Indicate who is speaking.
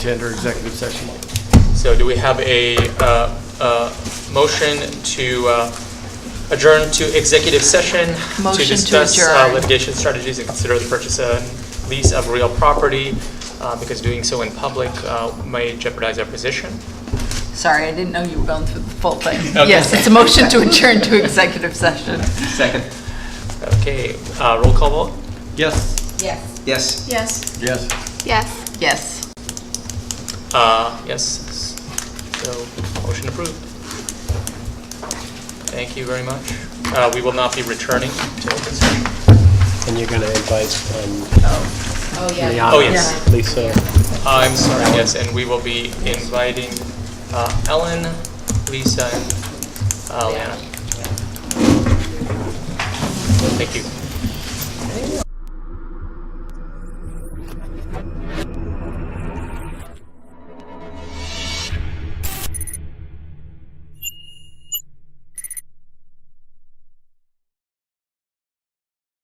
Speaker 1: Tender executive session.
Speaker 2: So do we have a uh, uh, motion to uh, adjourn to executive session?
Speaker 3: Motion to
Speaker 2: discuss uh,
Speaker 3: adjourn.
Speaker 2: litigation strategies and consider the purchase and lease of real property, uh, because doing so in public uh, may jeopardize our position.
Speaker 3: Sorry, I didn't know you were going through the full thing.
Speaker 2: Okay.
Speaker 3: Yes, it's a motion to adjourn to executive session.
Speaker 4: Second.
Speaker 2: Okay, uh, roll call vote?
Speaker 1: Yes.
Speaker 4: Yes.
Speaker 5: Yes.
Speaker 1: Yes.
Speaker 5: Yes.
Speaker 3: Yes.
Speaker 2: Uh, Yes, so motion approved. Thank you very much. Uh, We will not be returning to open session.
Speaker 6: And you're going to invite um,
Speaker 2: Oh, yes.
Speaker 6: Lisa?
Speaker 2: I'm sorry, yes, and we will be inviting uh, Ellen, Lisa, and uh, Lana. Thank you.